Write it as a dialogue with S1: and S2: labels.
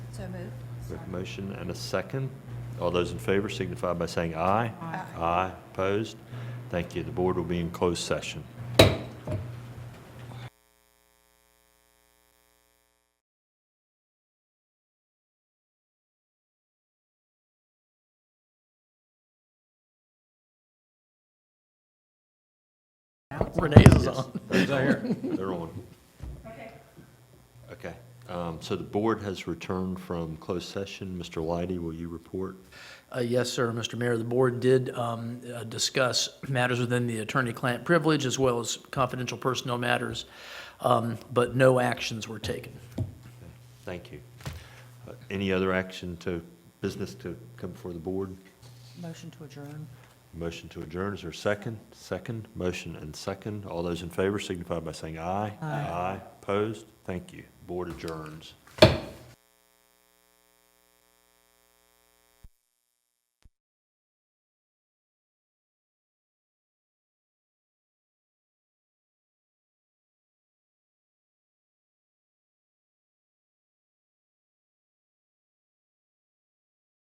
S1: So moved.
S2: We have a motion and a second. All those in favor signify by saying aye.
S1: Aye.
S2: Aye, opposed? Thank you. The board will be in closed session.
S3: Renee's is on.
S2: They're on. Okay. Um, So the board has returned from closed session. Mr. Leidy, will you report?
S3: Uh, Yes, sir, Mr. Mayor. The board did um, uh, discuss matters within the attorney-client privilege as well as confidential personnel matters, um, but no actions were taken.
S2: Thank you. Uh, Any other action to, business to come before the board?
S1: Motion to adjourn.
S2: Motion to adjourn, is there a second? Second, motion and second. All those in favor signify by saying aye. Aye. Opposed? Thank you. Board adjourns.